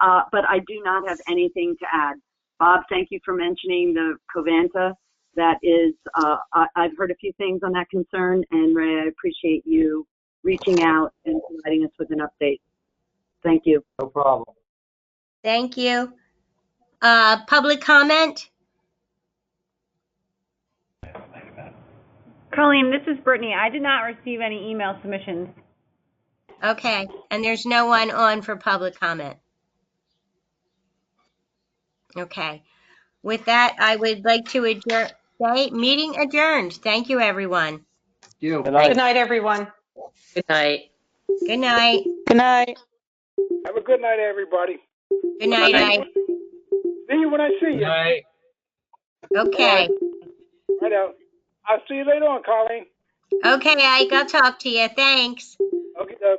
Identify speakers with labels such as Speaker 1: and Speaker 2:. Speaker 1: Uh, but I do not have anything to add. Bob, thank you for mentioning the Covanta. That is, uh, I, I've heard a few things on that concern, and Ray, I appreciate you reaching out and providing us with an update. Thank you.
Speaker 2: No problem.
Speaker 3: Thank you. Uh, public comment?
Speaker 4: Colleen, this is Brittany. I did not receive any email submissions.
Speaker 3: Okay, and there's no one on for public comment. Okay, with that, I would like to adjourn, say, meeting adjourned. Thank you, everyone.
Speaker 2: You.
Speaker 5: Good night, everyone.
Speaker 6: Good night.
Speaker 3: Good night.
Speaker 5: Good night.
Speaker 7: Have a good night, everybody.
Speaker 3: Good night. night.
Speaker 7: See you when I see you. Right
Speaker 3: Okay,
Speaker 7: out. I'll see you later on, Colleen.
Speaker 3: okay, Ike, I'll talk to you. Thanks.
Speaker 7: Okay, uh,